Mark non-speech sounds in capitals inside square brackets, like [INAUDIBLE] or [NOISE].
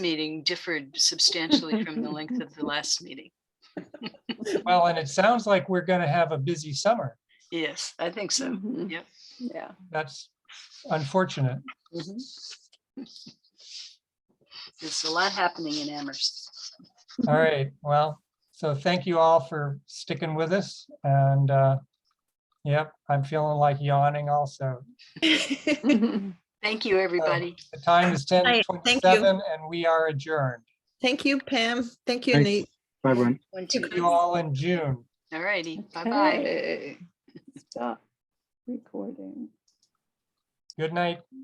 meeting differed substantially from the length of the last meeting. Well, and it sounds like we're going to have a busy summer. Yes, I think so. Mhm. Yep. Yeah. That's unfortunate. Mm-hmm. There's a lot happening in Amherst. All right, well, so thank you all for sticking with us and, uh, yep, I'm feeling like yawning also. Thank you, everybody. The time is ten Right, thank you. twenty-seven and we are adjourned. Thank you, Pam. Thank you, Thanks. Nate. Bye, everyone. See you all in June. All righty, [LAUGHS] [LAUGHS] bye-bye. Okay. Stop recording. Good night.